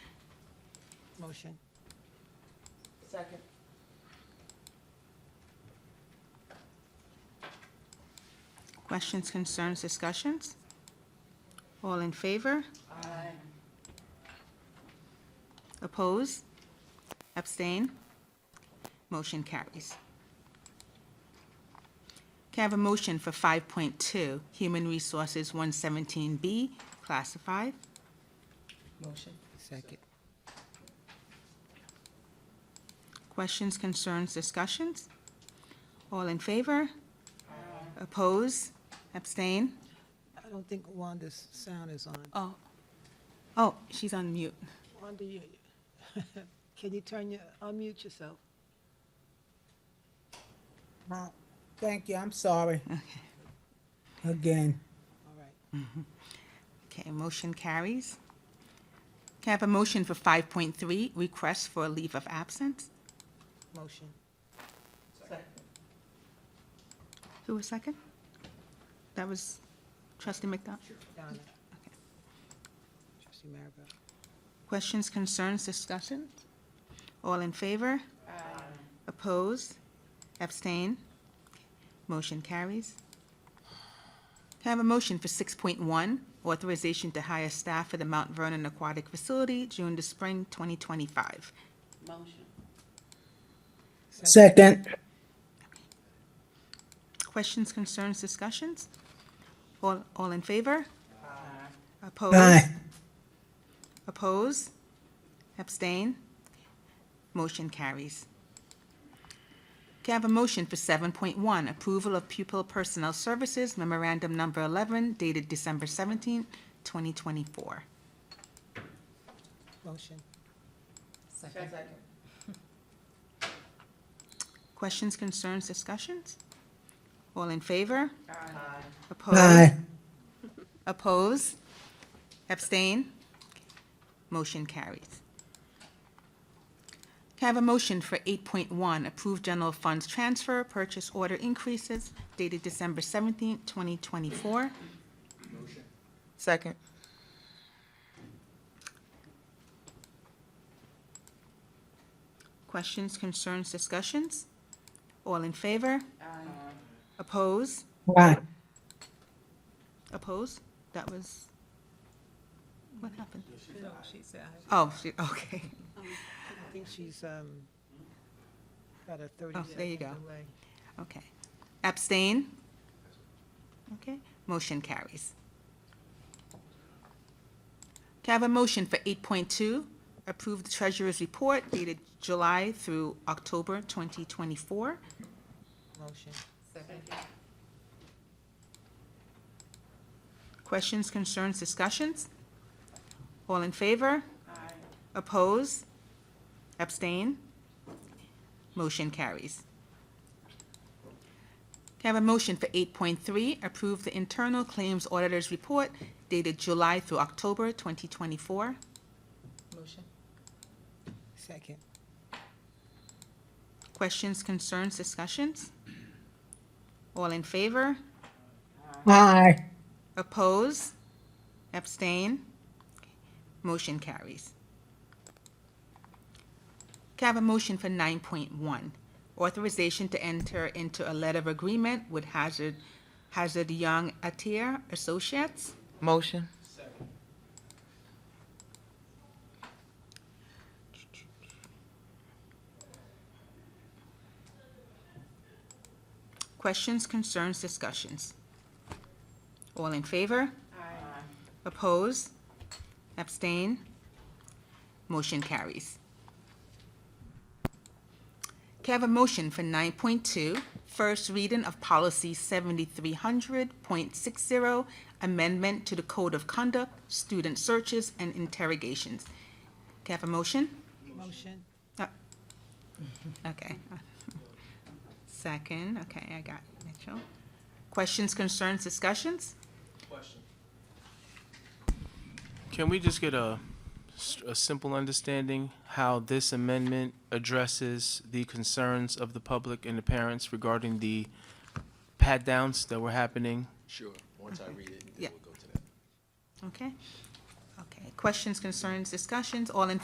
motion. Second. Questions, concerns, discussions? All in favor? Aye. Oppose? Abstain? Motion carries. Can I have a motion for 5.2, Human Resources 117B, classified? Motion. Second. Questions, concerns, discussions? All in favor? Oppose? Abstain? I don't think Wanda's sound is on. Oh, oh, she's on mute. Wanda, you, can you turn your, unmute yourself? Uh, Thank you, I'm sorry. Again, All right. Okay, motion carries. Can I have a motion for 5.3, request for a leave of absence? Motion. Second. Who was second? That was trustee McDonald? Donna. Trustee Maribel. Questions, concerns, discussions? All in favor? Aye. Opposed? Abstain? Motion carries. Can I have a motion for 6.1, authorization to hire staff for the Mount Vernon Aquatic Facility, June to spring 2025? Motion. second, Questions, concerns, discussions? All, all in favor? Opposed? aye, Oppose? Abstain? Motion carries. Can I have a motion for 7.1, approval of pupil personnel services memorandum number 11 dated December 17, 2024? Motion. Second. Questions, concerns, discussions? All in favor? Aye. Oppose? aye, Oppose? Abstain? Motion carries. Can I have a motion for 8.1, approve general funds transfer, purchase order increases dated December 17, 2024? Second. Questions, concerns, discussions? All in favor? Aye. Oppose? aye, Oppose? That was, what happened? She said aye. Oh, she- okay. I think she's, um, got a Oh, there thirty-second you delay. go. Okay. Abstain? Okay, motion carries. Can I have a motion for 8.2, approve the treasurer's report dated July through October 2024? Motion. Second. Questions, concerns, discussions? All in favor? Aye. Oppose? Abstain? Motion carries. Can I have a motion for 8.3, approve the internal claims auditor's report dated July through October 2024? Motion. Second. Questions, concerns, discussions? All in favor? aye, Oppose? Abstain? Motion carries. Can I have a motion for 9.1? Authorization to enter into a letter of agreement with Hazard, Hazard Young Atier Associates? Motion. Questions, concerns, discussions? All in favor? Aye. Oppose? Abstain? Motion carries. Can I have a motion for 9.2, first reading of policy 7300.60, amendment to the Code of Conduct, student searches and interrogations? Can I have a motion? Motion. Okay. Second, okay, I got Mitchell. Questions, concerns, discussions? Can we just get a, s- a simple understanding how this amendment addresses the concerns of the public and the parents regarding the pat-downs that were happening? Sure, once I read it, Yeah. then we'll go to that. Okay? Okay, questions, concerns, discussions, all in